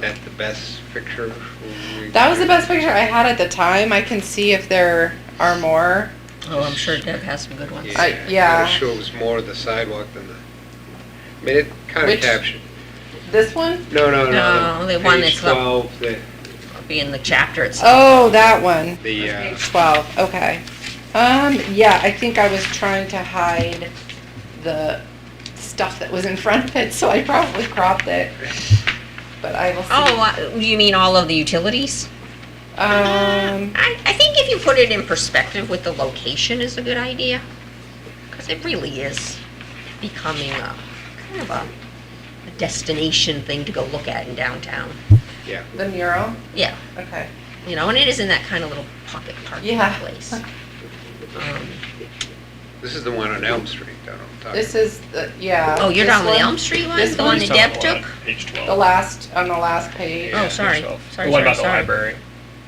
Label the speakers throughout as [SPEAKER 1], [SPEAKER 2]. [SPEAKER 1] that the best picture? we-
[SPEAKER 2] That was the best picture I had at the time. I can see if there are more.
[SPEAKER 3] Oh, I'm sure Deb has some good ones.
[SPEAKER 2] I-
[SPEAKER 1] Yeah, I
[SPEAKER 2] yeah.
[SPEAKER 1] was sure it was more of the sidewalk than the, I mean, it kind of
[SPEAKER 2] Which-
[SPEAKER 1] captured,
[SPEAKER 2] This one?
[SPEAKER 1] no, no, no.
[SPEAKER 3] No, the one
[SPEAKER 1] Page
[SPEAKER 3] that's up-
[SPEAKER 1] twelve, the,
[SPEAKER 3] It'll Be in the chapter itself.
[SPEAKER 2] Oh, that one.
[SPEAKER 1] the, uh,
[SPEAKER 2] Page 12, okay. Um, yeah, I think I was trying to hide the stuff that was in front of it, so I probably cropped it. But I will see.
[SPEAKER 3] Oh, uh, you mean all of the utilities?
[SPEAKER 2] Um,
[SPEAKER 3] I, I think if you put it in perspective with the location is a good idea, because it really is becoming a, kind of a a destination thing to go look at in downtown.
[SPEAKER 1] yeah,
[SPEAKER 2] the mural,
[SPEAKER 3] Yeah,
[SPEAKER 2] okay.
[SPEAKER 3] you know, and it is in that kind of little pocket parking
[SPEAKER 2] Yeah.
[SPEAKER 3] place. Um,
[SPEAKER 1] this is the one on Elm Street, I don't know. what I'm
[SPEAKER 2] This
[SPEAKER 1] talking
[SPEAKER 2] is, the yeah.
[SPEAKER 3] Oh, you're
[SPEAKER 2] this
[SPEAKER 3] down on the
[SPEAKER 2] one,
[SPEAKER 3] Elm Street one,
[SPEAKER 2] This
[SPEAKER 3] the
[SPEAKER 2] one?
[SPEAKER 3] one that
[SPEAKER 4] Some of
[SPEAKER 3] Deb
[SPEAKER 4] the one
[SPEAKER 3] took?
[SPEAKER 4] on Page twelve.
[SPEAKER 2] The last, on the last page.
[SPEAKER 1] Yeah,
[SPEAKER 3] Oh,
[SPEAKER 4] Page
[SPEAKER 3] sorry,
[SPEAKER 4] 12.
[SPEAKER 3] sorry,
[SPEAKER 4] The one
[SPEAKER 3] sorry,
[SPEAKER 4] about the
[SPEAKER 3] sorry.
[SPEAKER 4] library.
[SPEAKER 1] about.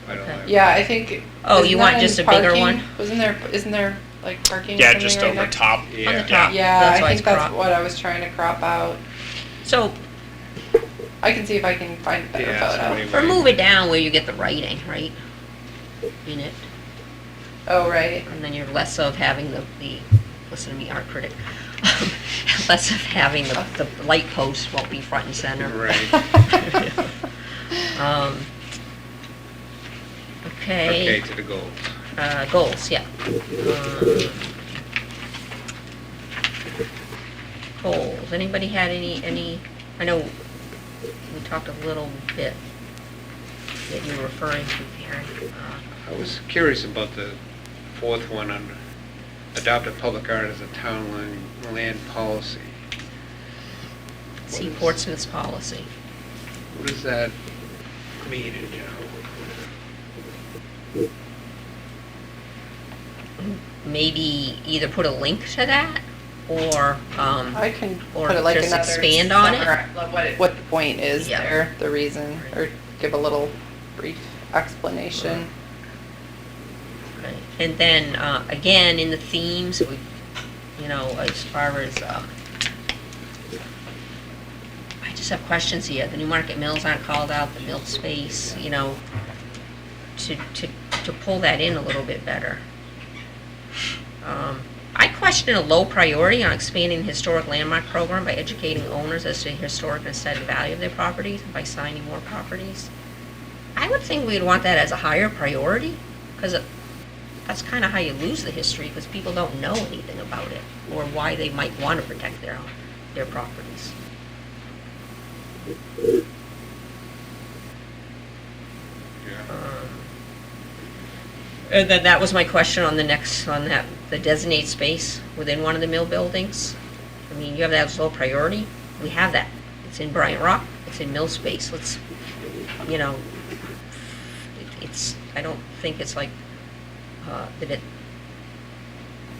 [SPEAKER 1] I don't know.
[SPEAKER 2] Yeah, I think.
[SPEAKER 3] Oh,
[SPEAKER 2] isn't
[SPEAKER 3] you
[SPEAKER 2] that
[SPEAKER 3] want
[SPEAKER 2] in
[SPEAKER 3] just a bigger
[SPEAKER 2] parking?
[SPEAKER 3] one?
[SPEAKER 2] Wasn't there, isn't there like parking? or
[SPEAKER 4] Yeah,
[SPEAKER 2] something
[SPEAKER 4] just
[SPEAKER 2] right
[SPEAKER 4] over
[SPEAKER 2] next-
[SPEAKER 4] top.
[SPEAKER 3] On the
[SPEAKER 1] Yeah,
[SPEAKER 3] top.
[SPEAKER 2] Yeah,
[SPEAKER 3] That's why
[SPEAKER 2] I
[SPEAKER 3] it's
[SPEAKER 2] think that's
[SPEAKER 3] cropped.
[SPEAKER 2] what I was trying to crop out.
[SPEAKER 3] So
[SPEAKER 2] I can see if I can find a better
[SPEAKER 1] Yeah, so
[SPEAKER 2] photo.
[SPEAKER 1] anyway.
[SPEAKER 3] Or move it down where you get the writing, right? In it,
[SPEAKER 2] Oh, right.
[SPEAKER 3] and then you're less of having the, the, listen to me, art critic. Less of having the, the light post won't be front and center.
[SPEAKER 1] Right,
[SPEAKER 3] Um,
[SPEAKER 1] okay,
[SPEAKER 3] okay,
[SPEAKER 1] to the goals.
[SPEAKER 3] uh, goals, yeah. Um, Goals, anybody had any, any, I know we talked a little bit that you were referring to, Karen. uh,
[SPEAKER 1] I was curious about the fourth one on adopt a public art as a town land, land policy.
[SPEAKER 3] See Portsmouth's policy.
[SPEAKER 1] What does that mean in general?
[SPEAKER 3] Maybe either put a link to that or, um,
[SPEAKER 2] I can
[SPEAKER 3] Or
[SPEAKER 2] put it like
[SPEAKER 3] just
[SPEAKER 2] another.
[SPEAKER 3] expand on it?
[SPEAKER 2] summar- like What, it- what the point is
[SPEAKER 3] Yeah.
[SPEAKER 2] there, the reason, or give a little brief explanation.
[SPEAKER 3] right. and then, uh, again, in the themes, we, you know, as far as, um, I just have questions here. The Newmarket Mills aren't called out, the mill space, you know, to, to, to pull that in a little bit better. Um, I question a low priority on expanding the historic landmark program by educating owners as to the historic and aesthetic value of their properties and by signing more properties. I would think we'd want that as a higher priority, because that's kind of how you lose the history, because people don't know anything about it, or why they might want to protect their, their properties.
[SPEAKER 1] Yeah.
[SPEAKER 3] Um, And then that was my question on the next, on that, the designate space within one of the mill buildings. I mean, you have that as low priority, we have that. It's in Bryant Rock, it's in mill space, let's, you know, it- it's, I don't think it's like, uh, that it,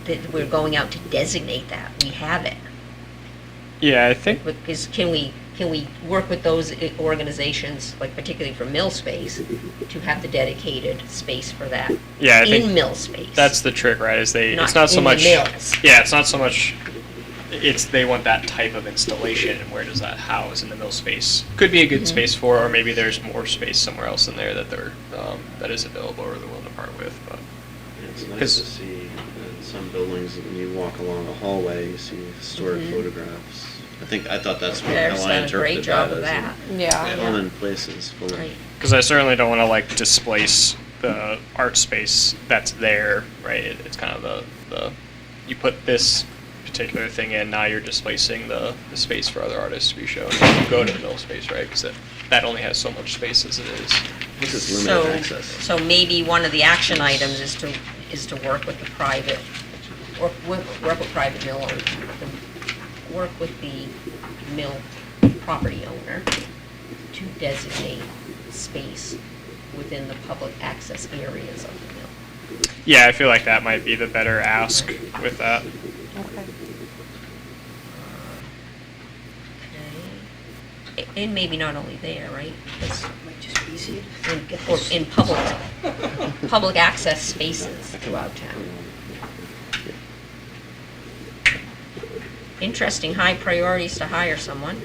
[SPEAKER 3] that we're going out to designate that, we have it.
[SPEAKER 4] Yeah, I think
[SPEAKER 3] But is, can we, can we work with those i- organizations, like particularly for mill space, to have the dedicated space for that?
[SPEAKER 4] Yeah, I think
[SPEAKER 3] In mill space.
[SPEAKER 4] that's the trick, right? Is they it's not so
[SPEAKER 3] in the
[SPEAKER 4] much
[SPEAKER 3] mills.
[SPEAKER 4] Yeah, it's not so much it's they want that type of installation and where does that house in the mill space? Could be a
[SPEAKER 3] Mm-hmm.
[SPEAKER 4] good space for or maybe there's more space somewhere else in there that they're um, that is available or they're willing to part with, but
[SPEAKER 5] It's
[SPEAKER 4] 'Cause-
[SPEAKER 5] nice to see in some buildings, when you walk along a hallway, you see historic
[SPEAKER 3] Mhm.
[SPEAKER 5] photographs. I think, I thought that's what,
[SPEAKER 3] There's
[SPEAKER 5] how I
[SPEAKER 3] done a great
[SPEAKER 5] interpreted
[SPEAKER 3] job
[SPEAKER 5] that
[SPEAKER 3] of that,
[SPEAKER 5] as.
[SPEAKER 2] Yeah.
[SPEAKER 5] Common places full of.
[SPEAKER 3] right.
[SPEAKER 4] Because I certainly don't want to like displace the art space that's there, right? It, it's kind of the, the you put this particular thing in, now you're displacing the, the space for other artists to be shown. You go to the middle space, right? Because that only has so much space as it is.
[SPEAKER 5] This is
[SPEAKER 3] So,
[SPEAKER 5] limited access.
[SPEAKER 3] so maybe one of the action items is to, is to work with the private, or work work with private mill, owners, the- work with the mill property owner to designate space within the public access areas of the mill.
[SPEAKER 4] Yeah, I feel like that might be the better ask with that.
[SPEAKER 2] Okay.
[SPEAKER 3] Okay. A- And maybe not only there, right? That's- In, or in public, public access spaces throughout town. Interesting, high priorities to hire someone.